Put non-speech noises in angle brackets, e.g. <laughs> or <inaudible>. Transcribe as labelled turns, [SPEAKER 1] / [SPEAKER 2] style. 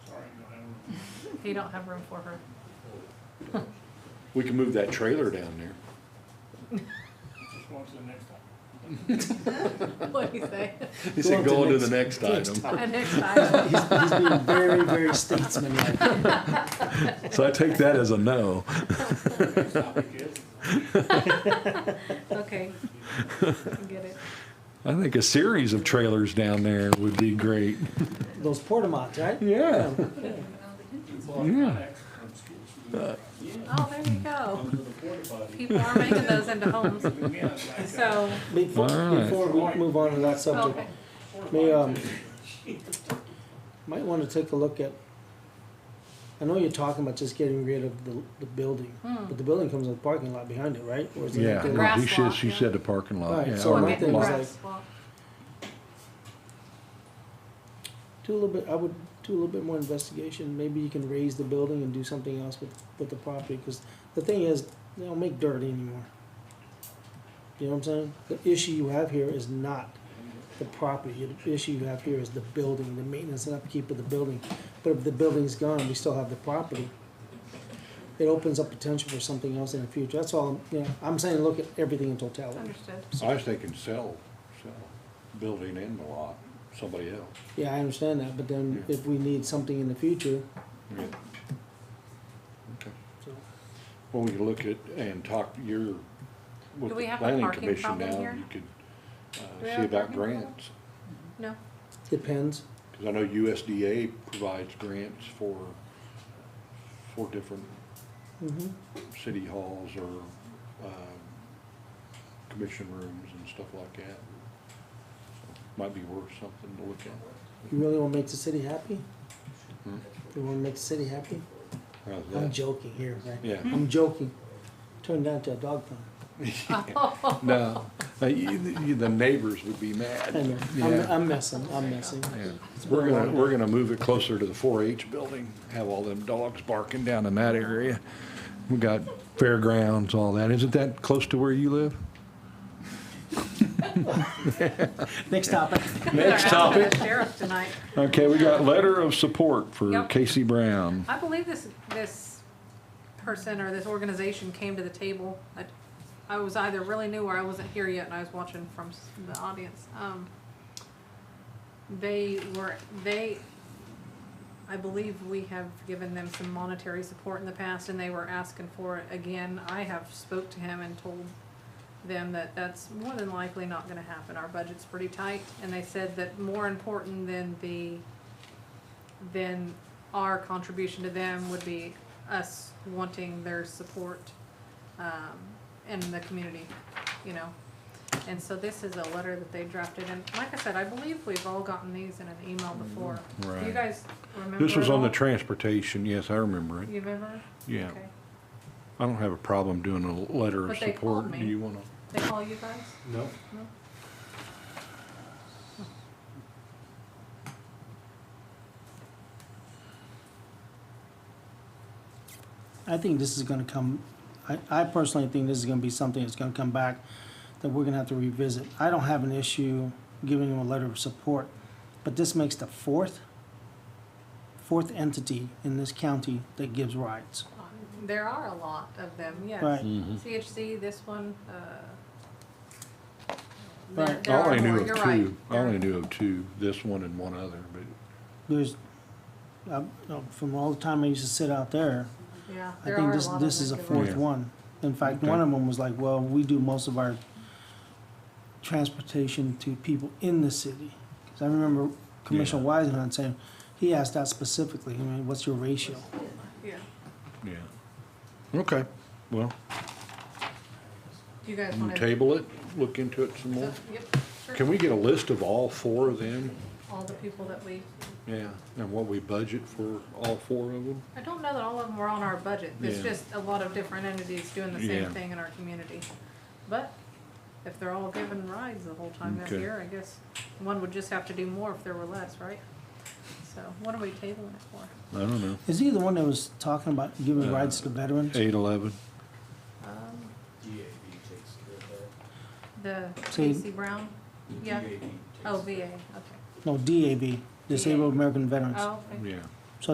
[SPEAKER 1] They don't have room for her. <laughs>
[SPEAKER 2] We can move that trailer down there.
[SPEAKER 3] Just go on to the next one.
[SPEAKER 1] What do you say? <laughs>
[SPEAKER 2] He said,
[SPEAKER 4] Go
[SPEAKER 2] go
[SPEAKER 4] on
[SPEAKER 2] on
[SPEAKER 4] to
[SPEAKER 2] to the next
[SPEAKER 4] next
[SPEAKER 2] item.
[SPEAKER 1] Next time.
[SPEAKER 4] He's, he's being very, very statesmanlike.
[SPEAKER 2] So I take that as a no.
[SPEAKER 3] Next topic is,
[SPEAKER 1] Okay. I Get it.
[SPEAKER 2] I think a series of trailers down there would be great.
[SPEAKER 4] Those portamots, right?
[SPEAKER 2] Yeah. Yeah.
[SPEAKER 3] um,
[SPEAKER 1] Oh, there you go.
[SPEAKER 3] Under the porta potty.
[SPEAKER 1] People are making those into homes.
[SPEAKER 3] Again, like, uh,
[SPEAKER 1] So,
[SPEAKER 4] Before,
[SPEAKER 2] Alright.
[SPEAKER 4] before we move on to that subject,
[SPEAKER 1] okay.
[SPEAKER 3] porta
[SPEAKER 4] may, um,
[SPEAKER 3] potty.
[SPEAKER 4] might want to take a look at. I know you're talking about just getting rid of the, the building, but the building comes with a parking lot behind it, right? Or is it
[SPEAKER 2] Yeah,
[SPEAKER 4] like a-
[SPEAKER 2] no, he
[SPEAKER 1] Grass
[SPEAKER 2] said,
[SPEAKER 1] lot,
[SPEAKER 2] she
[SPEAKER 1] yeah.
[SPEAKER 2] said the parking lot.
[SPEAKER 4] Alright,
[SPEAKER 2] yeah,
[SPEAKER 4] so
[SPEAKER 1] We're
[SPEAKER 4] my
[SPEAKER 2] lot.
[SPEAKER 1] getting
[SPEAKER 4] thing is
[SPEAKER 2] lot.
[SPEAKER 4] like-
[SPEAKER 1] grass. Well,
[SPEAKER 4] Do a little bit. I would do a little bit more investigation. Maybe you can raise the building and do something else with with the property. Because the thing is, they don't make dirt anymore. You know what I'm saying? The issue you have here is not the property. The issue you have here is the building, the maintenance and upkeep of the building. But if the building's gone, we still have the property. It opens up potential for something else in the future. That's all. I'm- You know, I'm saying look at everything in totality.
[SPEAKER 1] Understood.
[SPEAKER 5] I was thinking sell, sell, building in the lot, somebody else.
[SPEAKER 4] Yeah, I understand that. But then if we need something in the future,
[SPEAKER 5] Yeah. Okay.
[SPEAKER 4] so.
[SPEAKER 5] Well, we could look at and talk, you're with
[SPEAKER 1] Do we
[SPEAKER 5] the
[SPEAKER 1] have a
[SPEAKER 5] planning
[SPEAKER 1] parking
[SPEAKER 5] commission
[SPEAKER 1] problem
[SPEAKER 5] now,
[SPEAKER 1] here?
[SPEAKER 5] you could,
[SPEAKER 1] we
[SPEAKER 5] uh,
[SPEAKER 1] have
[SPEAKER 5] see
[SPEAKER 1] a
[SPEAKER 5] about
[SPEAKER 1] parking problem?
[SPEAKER 5] grants.
[SPEAKER 1] No.
[SPEAKER 4] Depends.
[SPEAKER 5] Cause I know USDA provides grants for, for different
[SPEAKER 4] Mm-hmm.
[SPEAKER 5] city halls or, um, commission rooms and stuff like that. So, Might be worth something to look at.
[SPEAKER 4] You really want to make the city happy?
[SPEAKER 5] Hmm?
[SPEAKER 4] You want to make the city happy?
[SPEAKER 5] How's
[SPEAKER 4] I'm
[SPEAKER 5] that?
[SPEAKER 4] joking here, man.
[SPEAKER 5] Yeah.
[SPEAKER 4] I'm joking. Turned down to a dog pound.
[SPEAKER 5] No, Uh, you- you- the neighbors would be mad.
[SPEAKER 4] I know.
[SPEAKER 5] Yeah.
[SPEAKER 4] I'm, I'm messing. I'm messing.
[SPEAKER 5] Yeah. We're gonna, we're gonna move it closer to the four H building, have all them dogs barking down in that area.
[SPEAKER 2] We got fairgrounds, all that. Isn't that close to where you live?
[SPEAKER 4] Next topic.
[SPEAKER 1] Next topic. Sheriff tonight.
[SPEAKER 2] Okay, we got letter of support for
[SPEAKER 1] Yep.
[SPEAKER 2] Casey Brown.
[SPEAKER 1] I believe this, this person or this organization came to the table. I, I was either really new or I wasn't here yet and I was watching from s- the audience. Um, they were, they, I believe we have given them some monetary support in the past and they were asking for it again. I have spoke to him and told them that that's more than likely not gonna happen. Our budget's pretty tight. And they said that more important than the then our contribution to them would be us wanting their support um, in the community, you know. And so this is a letter that they drafted, and like I said, I believe we've all gotten these in an email before. Do you
[SPEAKER 2] Right.
[SPEAKER 1] guys remember?
[SPEAKER 2] Mm-hmm. This was
[SPEAKER 1] at
[SPEAKER 2] on the
[SPEAKER 1] all?
[SPEAKER 2] transportation, yes, I remember it,
[SPEAKER 1] You remember?
[SPEAKER 2] yeah.
[SPEAKER 1] Okay.
[SPEAKER 2] I don't have a problem doing a letter of
[SPEAKER 1] But they called
[SPEAKER 2] support. Do
[SPEAKER 1] me.
[SPEAKER 2] you wanna?
[SPEAKER 1] They call you guys?
[SPEAKER 3] No.
[SPEAKER 1] No?
[SPEAKER 4] I think this is gonna come, I, I personally think this is gonna be something that's gonna come back that we're gonna have to revisit. I don't have an issue giving them a letter of support, but this makes the fourth, fourth entity in this county that gives rides.
[SPEAKER 1] There are a lot of them, yes.
[SPEAKER 4] Right.
[SPEAKER 1] Mm-hmm. CHC, this one, uh. there-
[SPEAKER 4] Right.
[SPEAKER 1] there
[SPEAKER 2] I
[SPEAKER 1] are
[SPEAKER 2] only
[SPEAKER 1] more,
[SPEAKER 2] knew
[SPEAKER 1] you're
[SPEAKER 2] of
[SPEAKER 1] right.
[SPEAKER 2] two. I
[SPEAKER 1] There-
[SPEAKER 2] only knew of two, this one and one other, but
[SPEAKER 4] There's, uh, uh, from all the time I used to sit out there,
[SPEAKER 1] Yeah,
[SPEAKER 4] I
[SPEAKER 1] there
[SPEAKER 4] think
[SPEAKER 1] are
[SPEAKER 4] this,
[SPEAKER 1] a lot of
[SPEAKER 4] this is a
[SPEAKER 1] them, you're
[SPEAKER 4] fourth
[SPEAKER 1] right.
[SPEAKER 4] one. In fact,
[SPEAKER 2] Okay.
[SPEAKER 4] one of them was like, well, we do most of our transportation to people in the city. Cause I remember Commissioner Weisenhunt saying, he asked that specifically, I mean, what's your ratio?
[SPEAKER 1] Yeah.
[SPEAKER 2] yeah. Okay, well,
[SPEAKER 1] Do you guys
[SPEAKER 5] You
[SPEAKER 1] wanna?
[SPEAKER 5] table it, look into it some more.
[SPEAKER 1] Yep, sure.
[SPEAKER 5] Can we get a list of all four of them?
[SPEAKER 1] All the people that we,
[SPEAKER 5] Yeah, and what we budget for all four of them?
[SPEAKER 1] I don't know that all of them were on our budget, it's
[SPEAKER 5] Yeah.
[SPEAKER 1] just a lot of different entities doing the same
[SPEAKER 2] Yeah.
[SPEAKER 1] thing in our community. But if they're all given rides the whole time that
[SPEAKER 2] Okay.
[SPEAKER 1] year, I guess one would just have to do more if there were less, right? So what are we tabling it for?
[SPEAKER 2] I don't know,
[SPEAKER 4] Is he the one that was talking about giving rides to the veterans?
[SPEAKER 2] eight, eleven.
[SPEAKER 1] Um,
[SPEAKER 3] E
[SPEAKER 6] DAB takes care of that.
[SPEAKER 1] The
[SPEAKER 4] So you-
[SPEAKER 1] Casey Brown? Yeah,
[SPEAKER 3] E
[SPEAKER 6] DAB takes
[SPEAKER 1] oh,
[SPEAKER 6] care
[SPEAKER 1] VA, okay.
[SPEAKER 4] No, DAB, Disabled American Veterans.
[SPEAKER 1] Oh, okay.
[SPEAKER 2] yeah.